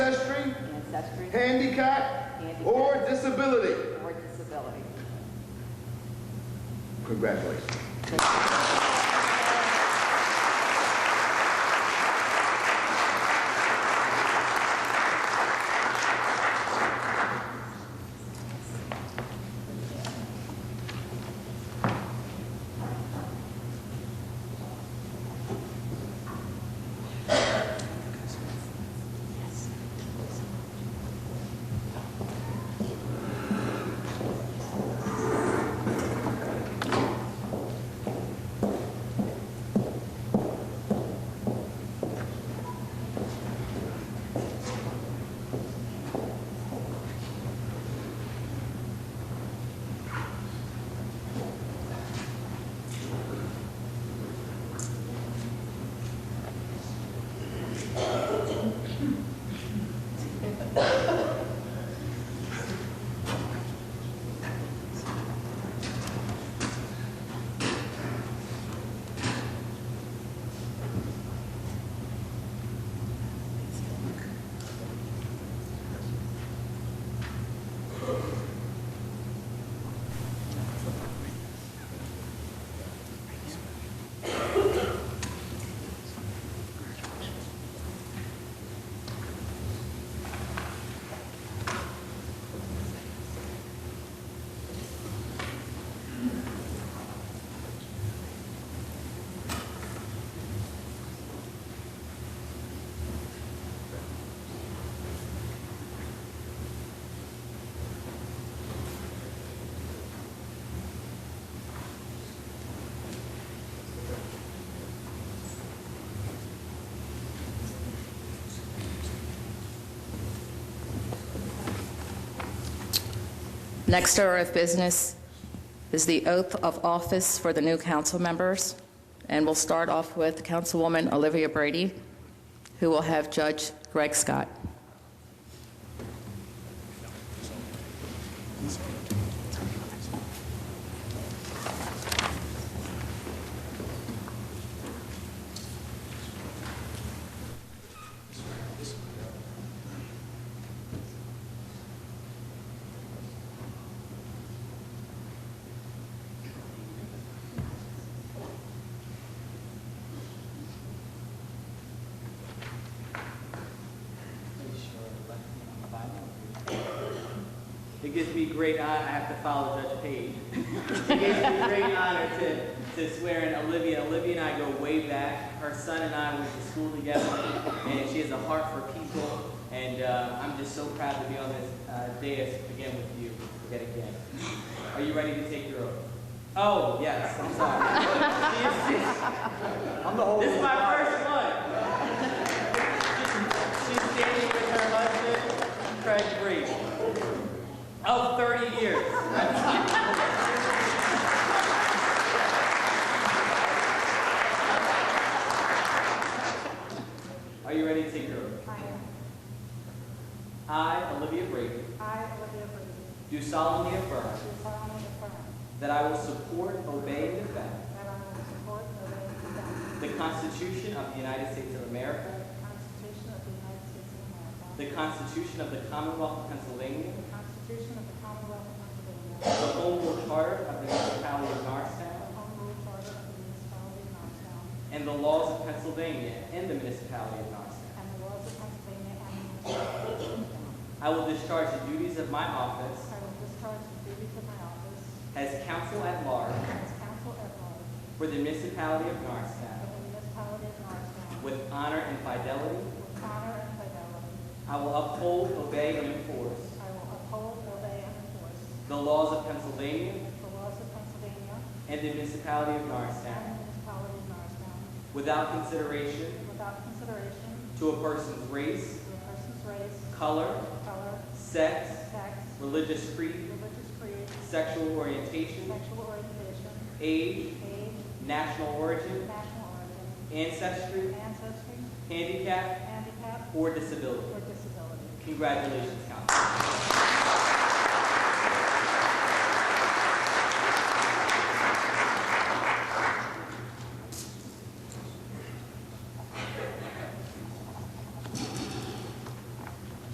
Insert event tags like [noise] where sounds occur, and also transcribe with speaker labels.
Speaker 1: handicap, or disability.
Speaker 2: or disability.
Speaker 1: Congratulations.
Speaker 3: Next order of business is the oath of office for the new council members, and we'll start off with Councilwoman Olivia Brady, who will have Judge Greg Scott.
Speaker 4: It gives me great honor, I have to follow Judge Page. [laughs] It gives me great honor to, to swear in Olivia. Olivia and I go way back. Her son and I went to school together, and she has a heart for people. And uh, I'm just so proud to be on this uh, dais again with you, yet again. Are you ready to take your oath? Oh, yes, I'm [laughs] sorry. I'm the This is my first one. She's standing with her husband, Craig Brady, of 30 years. Are you ready to take your oath?
Speaker 5: I,
Speaker 4: I, Olivia Brady,
Speaker 5: I, Olivia Brady,
Speaker 4: do solemnly affirm
Speaker 5: do solemnly affirm
Speaker 4: that I will support, obey, and defend
Speaker 5: that I will support and obey the
Speaker 4: the Constitution of the United States of America,
Speaker 5: Constitution of the United States of America,
Speaker 4: the Constitution of the Commonwealth of Pennsylvania,
Speaker 5: the Constitution of the Commonwealth of
Speaker 4: the
Speaker 5: Pennsylvania,
Speaker 4: Home Rule Charter of the Municipality of
Speaker 5: the
Speaker 4: Norristown,
Speaker 5: Home Rule Charter of the Municipality of Norristown,
Speaker 4: and the laws of Pennsylvania and the Municipality of Norristown.
Speaker 5: and the laws of Pennsylvania and the Municipality of Norristown.
Speaker 4: I will discharge the duties of my office
Speaker 5: I will discharge the duties of my office
Speaker 4: as counsel at large
Speaker 5: as counsel at large
Speaker 4: for the Municipality of
Speaker 5: of
Speaker 4: Norristown
Speaker 5: the Municipality of Norristown
Speaker 4: with honor and fidelity.
Speaker 5: with honor and fidelity.
Speaker 4: I will uphold, obey, and enforce
Speaker 5: I will uphold, obey, and enforce
Speaker 4: the laws of Pennsylvania
Speaker 5: the laws of Pennsylvania
Speaker 4: and the Municipality of Norristown
Speaker 5: and the Municipality of Norristown
Speaker 4: without consideration
Speaker 5: Without consideration
Speaker 4: to a person's race,
Speaker 5: to a person's race,
Speaker 4: color,
Speaker 5: color,
Speaker 4: sex,
Speaker 5: sex,
Speaker 4: religious creed,
Speaker 5: religious creed,
Speaker 4: sexual orientation,
Speaker 5: sexual orientation,
Speaker 4: age,
Speaker 5: age,
Speaker 4: national origin,
Speaker 5: national origin,
Speaker 4: ancestry,
Speaker 5: ancestry,
Speaker 4: handicap,
Speaker 5: handicap,
Speaker 4: or disability.
Speaker 5: or disability.
Speaker 4: Congratulations, Council.